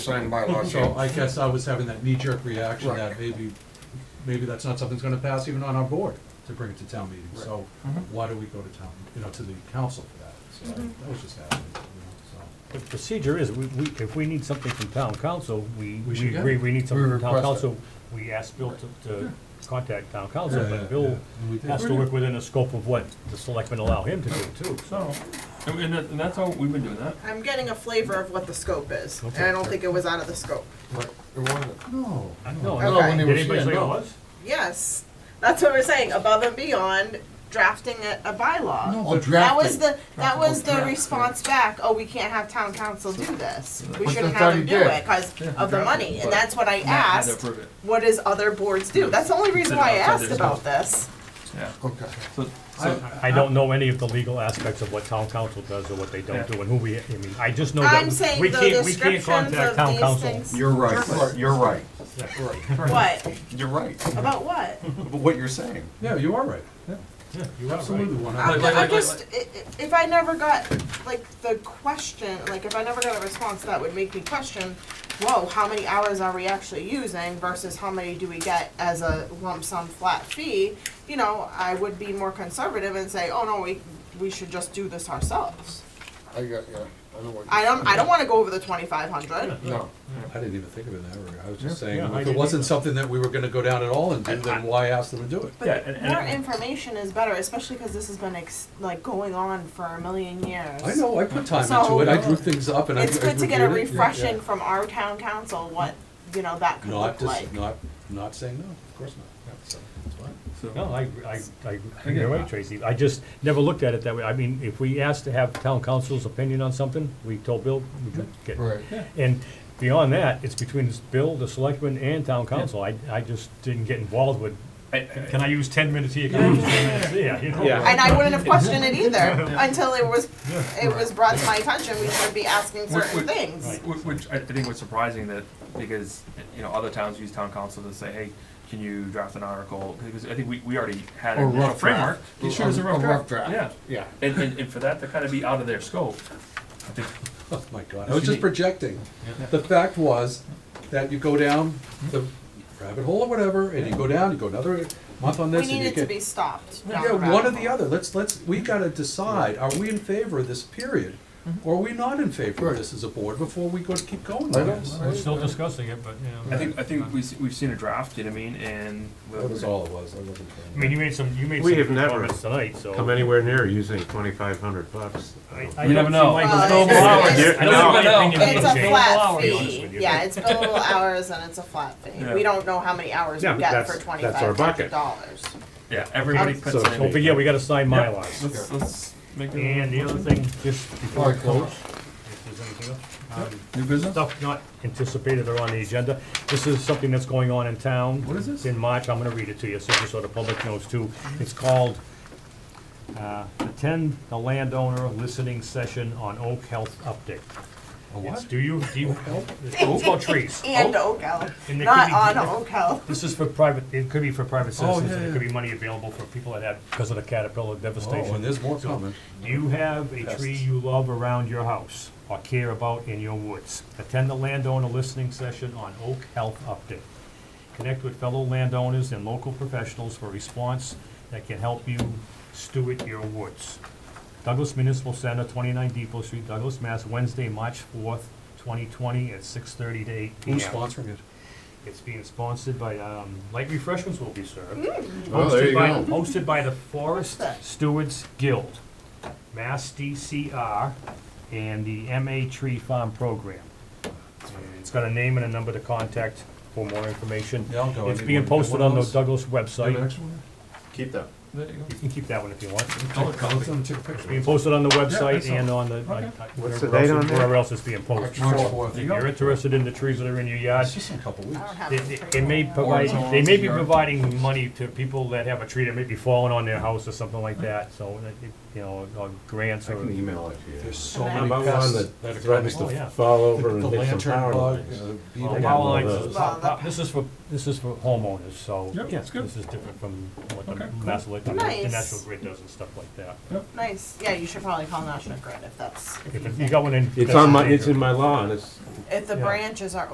signed by law So change. I guess I was having that knee-jerk reaction Right. that maybe, maybe that's not something that's gonna pass even on our board to bring it to town meeting. So Mm-hmm. why do we go to town, you know, to the council for that? So Mm-hmm. that was just happening, you The procedure is, we, we, if we need something from town council, we, We should we get agree, it. we need something We from town request it. council, we ask Bill to, to contact town know, so. council, Yeah, yeah, but Bill yeah. And we did. has to work within the scope of what the selectmen allow him to do too, so. So, and, and that- and that's how we've been doing that. I'm getting a flavor of what the scope is, and Okay. I don't think it was out of the scope. But it wasn't. No. No, I thought when he did was anybody here, say it no. was? Yes, that's what we're saying, above and beyond drafting a, a bylaw. Or That was drafted. the, that was the Drafting. response back, oh, we can't have town council do this. We But shouldn't that's how have them he do did. it because of the money, and But that's what I Matt had to asked, approve it. what does other boards do? That's the only reason Consider why I outside asked their about scope. this. Yeah, Okay. so, so, I don't know any of the legal aspects of what town council does or what they don't Yeah. do and who we, I mean, I just know that I'm saying we the can't, we can't descriptions contact of town these council. things. You're right, you're right, What, you're right, about what? But what you're saying. Yeah, you are right, yeah. You absolutely one I'm, hundred. like- I'm like- just, i- i- if I never got, like, the question, like, if I never got a response, that would make me question, whoa, how many hours are we actually using versus how many do we get as a lump sum flat fee? You know, I would be more conservative and say, oh, no, we, we should just do this ourselves. I got, yeah, I know what. I you- don't, I don't wanna go over the twenty-five hundred. No. I didn't even think of it in that regard. I was just Yeah. saying, Yeah, I if it didn't wasn't something that we were gonna go down at all and do, then why ask them to do it? yeah, and, and. More information is better, especially because this has been ex- like going on for a million years. I know, I put time So- into it, I drew things up and I I It's good to get a reviewed it. Yeah, yeah. refreshing from our town council, what, you know, that could Not, look like. dis- not, not saying no, of course not, Yeah, so, that's fine. so- No, I, I, I, you're right, Tracy, I just never looked at it that way, I mean, if we asked to have town council's opinion on something, we told Bill, we could get Right. And beyond that, it's between this Bill, the selectmen, and town council. I, I just didn't get involved with, can I use ten minutes here, can I use ten minutes there, you know? Yeah. And I wouldn't have questioned it either until it was, it was brought to my attention, we should be asking Which- which- certain things. Wh- Which I think was surprising that, because, you know, other towns use town council to say, hey, can you draft an article? Because I think we, we already had Or an initial rough framework. draft. You sure it's a rough draft? draft. Yeah. Yeah, and, and, and for that to kind of be out of their scope, I think, Oh, my God, I was just Unique. projecting. The fact was that you go down the rabbit hole or whatever, and you go down, you go another month on We this, and you needed to get. be stopped down the Yeah, one or rabbit the hole. other, let's, let's, we gotta decide, are we in favor of this period? Or are we not in favor of Right. this as a board before we go to keep going I on don't- this? We're still discussing it, but, you I know. think, I think we've, we've seen a draft, you know what I mean, and. That was all it was, I wasn't. I mean, you made some, you made We have some never comments tonight, so. come anywhere near using twenty-five hundred bucks. I- I You never don't see know. Michael's- Well, No, it's- Bill, it's- You I don't see my never know. opinion being It's a changed. flat I'll be honest fee, with you. yeah, it's billable hours and it's a flat fee. Yeah. We don't know how many hours Yeah, we but get that's- for that's our twenty-five hundred bucket. dollars. Yeah, everybody Um, puts So- Don't in. forget, we gotta sign Yeah, Mylars. Let's, let's make it. And the other thing, just before I close, if there's anything else, um, New business? stuff not anticipated or on the agenda. This is something that's going on in town. What is this? In March, I'm gonna read it to you, so just so the public knows too. It's called, uh, Attend the Landowner Listening Session on Oak Health Update. It's, do you, do you, it's about Oh, trees. Oh. And Oak Hill, And it not could be- on Oak Hill. This is for private, it could be for private Oh, citizens, and yeah, it could be money available for people that have, because of the caterpillar devastation. Oh, and there's more So, coming. do you have a tree you love around your house or care about in your woods? Attend the landowner listening session on Oak Health Update. Connect with fellow landowners and local professionals for response that can help you steward your woods. Douglas Municipal Center, twenty-nine Depot Street, Douglas, Mass., Wednesday, March fourth, twenty twenty, at six thirty to eight P M. Who's sponsoring it? It's being sponsored by, um, light refreshments will be served. Oh, there Hosted you by- go. Hosted by the Forest Stewards Guild, Mass DCR, and the MA Tree Farm Program. And It's got a name and a number to contact for more information. Yeah, I'll go. I It's need being one. You want posted on the one of Douglas Do you have an website. extra one? Keep that. There you You can keep that one if you want. go. I'll let them take a picture. Being posted on the website saw it. and on the, Okay. uh, What's wherever the else- date on there? wherever else it's being posted. March fourth. If you're interested in the trees that are in your yard, It's just in a couple I weeks. don't have They, a they- tree they may going on. provide, they may be Or- providing money to people that have a tree that may be falling on their house or something like that, so uh, it- it- you know, or grants I or. can email it to you. There's so And many then- About one pests that that are threatens Oh, yeah. to fall The over and hit some lantern power bug, lines. uh, Well, beetle. power one of lines those. is not- not- This is for, this is for homeowners, so. Yep, that's good. This is different from what the Okay, cool. mass elect, the Nice. national grid does and stuff like that. Nice, yeah, you should probably call National Grid if that's, If it- you got one in. It's on my, that's it's in my law and it's if the Yeah. branches are